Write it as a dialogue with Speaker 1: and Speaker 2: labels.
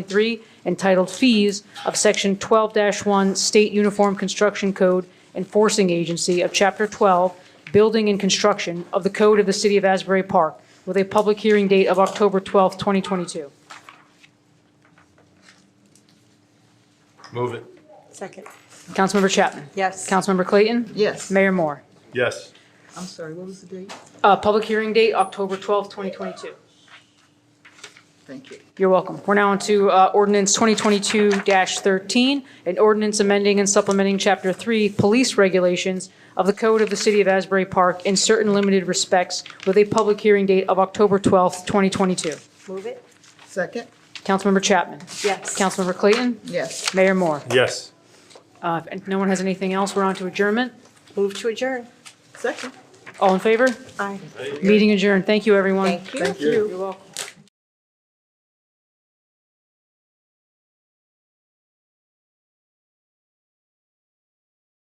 Speaker 1: 3, entitled Fees of Section 12-1 State Uniform Construction Code Enforcing Agency of Chapter 12, Building and Construction of the Code of the City of Asbury Park, with a public hearing date of October 12, 2022.
Speaker 2: Move it.
Speaker 3: Second.
Speaker 1: Councilmember Chapman?
Speaker 3: Yes.
Speaker 1: Councilmember Clayton?
Speaker 3: Yes.
Speaker 1: Mayor Moore?
Speaker 2: Yes.
Speaker 3: I'm sorry, what was the date?
Speaker 1: Uh, Public hearing date, October 12, 2022.
Speaker 3: Thank you.
Speaker 1: You're welcome. We're now on to uh, ordinance 2022-13, an ordinance amending and supplementing Chapter 3 Police Regulations of the Code of the City of Asbury Park in certain limited respects with a public hearing date of October 12, 2022.
Speaker 3: Move it. Second.
Speaker 1: Councilmember Chapman?
Speaker 3: Yes.
Speaker 1: Councilmember Clayton?
Speaker 3: Yes.
Speaker 1: Mayor Moore?
Speaker 2: Yes.
Speaker 1: Uh, If and no one has anything else, we're on to adjournment.
Speaker 3: Move to adjourn. Second.
Speaker 1: All in favor?
Speaker 3: Aye.
Speaker 1: Meeting adjourned. Thank you, everyone.
Speaker 3: Thank you. Thank you.
Speaker 1: You're welcome.